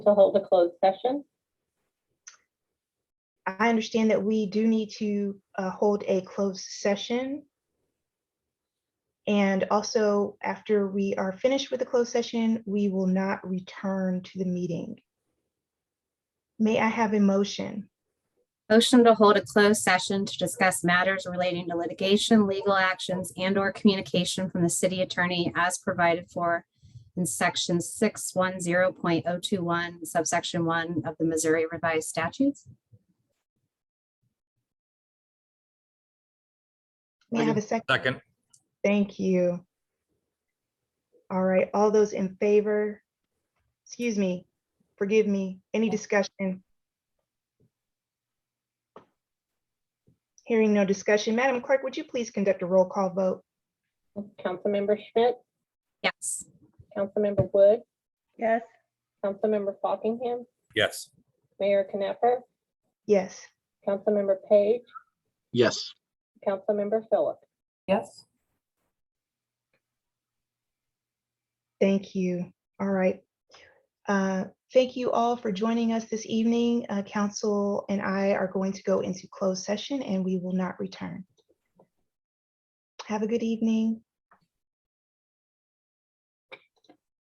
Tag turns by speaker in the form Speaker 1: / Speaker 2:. Speaker 1: to hold a closed session.
Speaker 2: I understand that we do need to uh, hold a closed session. And also, after we are finished with the closed session, we will not return to the meeting. May I have a motion?
Speaker 3: Motion to hold a closed session to discuss matters relating to litigation, legal actions, and/or communication from the city attorney as provided for in section six one zero point oh two one subsection one of the Missouri Revised Statutes.
Speaker 2: May I have a second?
Speaker 4: Second.
Speaker 2: Thank you. All right, all those in favor? Excuse me, forgive me, any discussion? Hearing no discussion, Madam Clerk, would you please conduct a roll call vote?
Speaker 1: Councilmember Schmidt,
Speaker 3: Yes.
Speaker 1: Councilmember Wood,
Speaker 5: Yes.
Speaker 1: Councilmember Fockingham,
Speaker 4: Yes.
Speaker 1: Mayor Knapper,
Speaker 2: Yes,
Speaker 1: Councilmember Page,
Speaker 6: Yes,
Speaker 1: Councilmember Phillips.
Speaker 5: Yes.
Speaker 2: thank you. All right. Uh, Thank you all for joining us this evening. Uh, Council and I are going to go into closed session and we will not return. Have a good evening.